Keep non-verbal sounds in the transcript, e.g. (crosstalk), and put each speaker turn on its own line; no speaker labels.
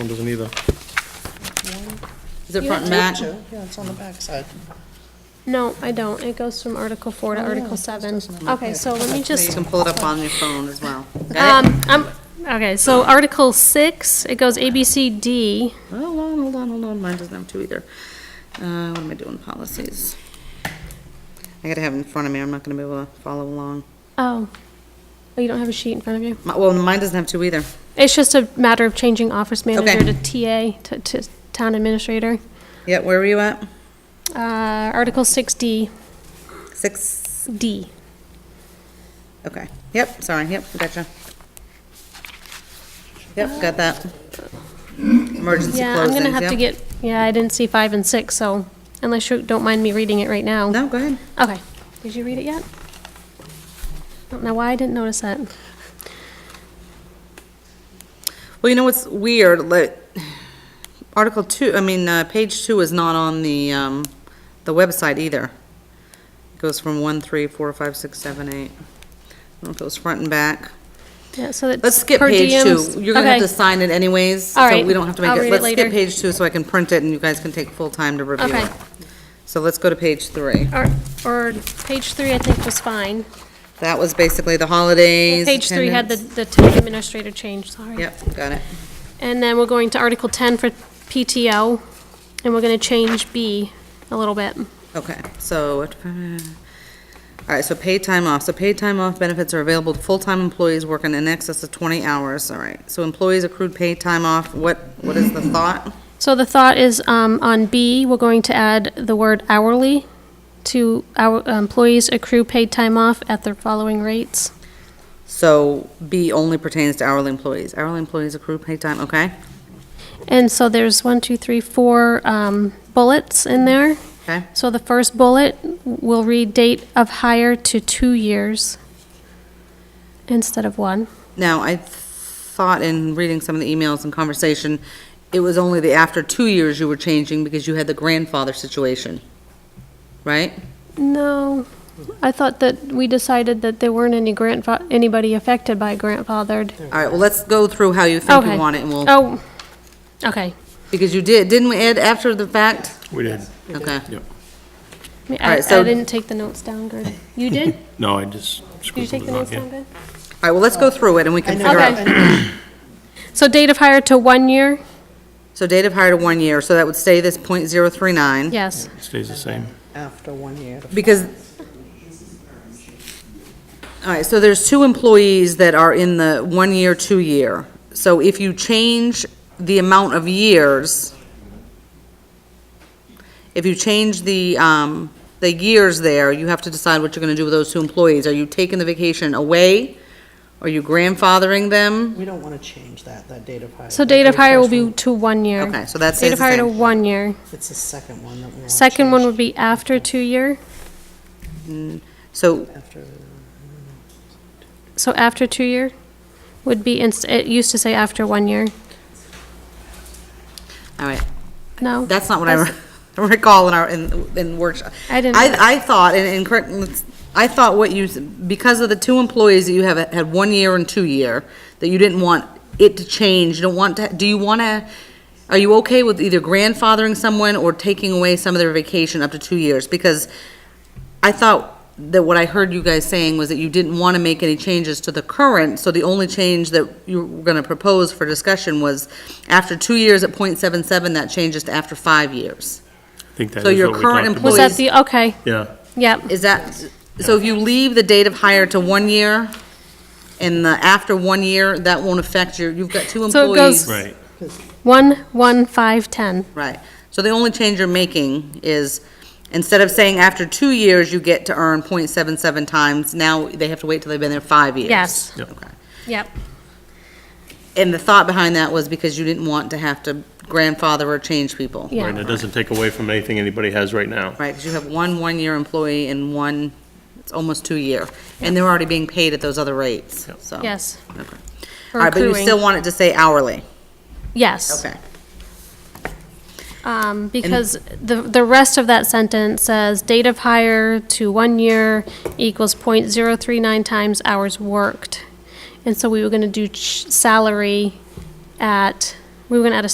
one doesn't either.
Is it
You
front and
have
back?
to- Yeah, it's on the backside.
No, I don't. It goes from Article 4
Oh,
to Article 7. Okay, so let me
You
just,
can pull it up on your phone as (laughs) well. Got it?
um, I'm, okay, so Article 6, it goes A, B, C, D.
Um, Hold on, hold on, hold on, mine doesn't have two either. Uh, what am I doing, policies? I gotta have it in front of me, I'm not gonna be able to follow along.
Oh, oh, you don't have a sheet in front of you?
My- Well, mine doesn't have two either.
It's just a matter of changing office manager
Okay.
to TA, to- to town administrator.
Yeah, where were you at?
Uh, Article 6D,
Six,
D.
okay, yep, sorry, yep, gotcha. Yep, got that. Emergency
Yeah, I'm gonna
closings,
have to
yep.
get, yeah, I didn't see 5 and 6, so unless you don't mind me reading it right now.
No, go ahead.
Okay, did you read it yet? I don't know why I didn't notice that.
Well, you know what's weird, like, Article two, I mean, uh, page two is not on the, um, the website either. It Goes from one, three, four, five, six, seven, eight. I don't know if it was front and back.
Yeah, so that's.
Let's skip
per
page
diems.
two. You're gonna have
Okay.
to sign it anyways.
All
So
right,
we don't have to make
I'll
it.
read it
Let's skip
later.
page two so I can print it and you guys can take full time to review
Okay.
it. So let's go to page three.
Or, or page three, I think, was fine.
That was basically the holidays.
Page three had the,
attendance.
the town administrator change, sorry.
Yep, got it.
And then we're going to Article ten for PTO, and we're gonna change B a little bit.
Okay, so, what- all right, so paid time off. So paid time off benefits are available to full-time employees working in excess of 20 hours, all right. So employees accrued paid time off, what, what is the thought?
So the thought is, um, on B, we're going to add the word hourly to our employees accrue paid time off at the following rates.
So B only pertains to hourly employees. Hourly employees accrue paid time, okay?
And so there's one, two, three, four, um, bullets in there.
Okay,
So the first bullet will read date of hire to two years instead of one.
now, I thought in reading some of the emails and conversation, it was only the after two years you were changing because you had the grandfather situation, right?
No, I thought that we decided that there weren't any grandfa, anybody affected by grandfathered.
All right, well, let's go through how you think
Okay.
you want it and we'll
Oh, okay.
Because you did, didn't we add after the fact?
We did.
Okay.
I mean,
All
I, I
right, so-
didn't take the notes down good. You did?
No, I just
Did you
scribbled
take
it
the
on
notes down
here.
good?
All right, well, let's go through it and we can figure out.
Okay. So date of hire to one year?
So date of hire to one year, so that would stay this point zero three nine.
Yes.
Stays the same.
After one year.
Because, all right, so there's two employees that are in the one year, two year. So if you change the amount of years, if you change the, um, the years there, you have to decide what you're gonna do with those two employees. Are you taking the vacation away? Are you grandfathering them?
We don't want to change that, that date of hire.
So date of hire will be
First
to one year.
Okay, so that
Date
stays
of
the
hire to
same.
one year.
one- It's the second one that we want to
Second one
change
would be after two year.
So
After,
So after two year would be, inst- it used to say after one year.
All right,
No?
that's not what I re- (laughs) recall in our, in, in workshop.
I didn't-
I, I thought, and, and correct, I thought what you, s- because of the two employees that you have had one year and two year, that you didn't want it to change, you don't want to, do you want to, are you okay with either grandfathering someone or taking away some of their vacation up to two years? Because I thought that what I heard you guys saying was that you didn't want to make any changes to the current, so the only change that you were going to propose for discussion was after two years at .77, that changes to after five years.
I think that
So
is
your
what we
current
talked about.
Was that the, okay,
Yeah,
yep.
Is that, so if you leave the date of hire to one year, and the after one year, that won't affect your, you've got two
So it goes-
employees.
right.
One, one, five, ten.
Right. So the only change you're making is, instead of saying after two years, you get to earn .77 times, now they have to wait till they've been there five years.
Yes.
Yep.
Okay.
Yep.
And the thought behind that was because you didn't want to have to grandfather or change people.
Yeah.
Right, and it doesn't take away from anything anybody has right now.
Right, because you have one one-year employee and one, it's almost two-year. And they're already being paid at those other rates,
Yep.
so.
Yes.
Okay.
For
All right, but you
accruing.
still want it to say hourly?
Yes.
Okay.
Um, because the, the rest of that sentence says date of hire to one year equals point zero three nine times hours worked. And so we were gonna do ch- salary at, we were gonna add a